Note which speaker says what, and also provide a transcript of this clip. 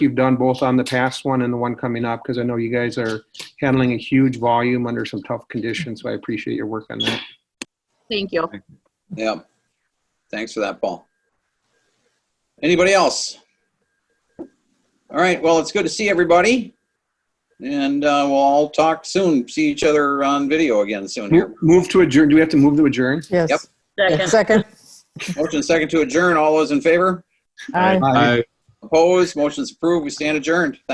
Speaker 1: you've done both on the past one and the one coming up, because I know you guys are handling a huge volume under some tough conditions, so I appreciate your work on that.
Speaker 2: Thank you.
Speaker 3: Yeah. Thanks for that, Paul. Anybody else? All right, well, it's good to see everybody. And uh, we'll all talk soon, see each other on video again soon here.
Speaker 1: Move to adjourn, do we have to move to adjourn?
Speaker 3: Yep.
Speaker 4: Yes.
Speaker 2: Second.
Speaker 4: Second.
Speaker 3: Motion second to adjourn, all those in favor?
Speaker 4: Aye.
Speaker 1: Aye.
Speaker 3: Opposed, motion's approved, we stand adjourned.